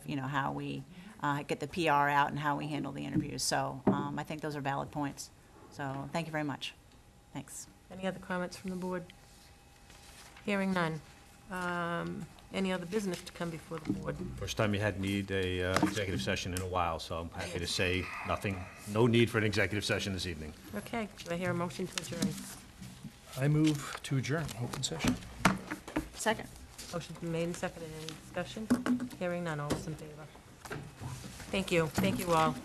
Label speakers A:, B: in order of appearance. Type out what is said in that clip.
A: you know, how we uh, get the PR out and how we handle the interviews. So um, I think those are valid points. So thank you very much. Thanks.
B: Any other comments from the board? Hearing none. Um, Any other business to come before the board?
C: First time you had need a uh, executive session in a while, so I'm happy to say nothing, no need for an executive session this evening.
B: Okay, do I hear a motion to adjourn?
D: I move to adjourn open session.
A: Second.
B: Motion's been made and seconded. Any discussion? Hearing none. All those in favor? Thank you. Thank you all.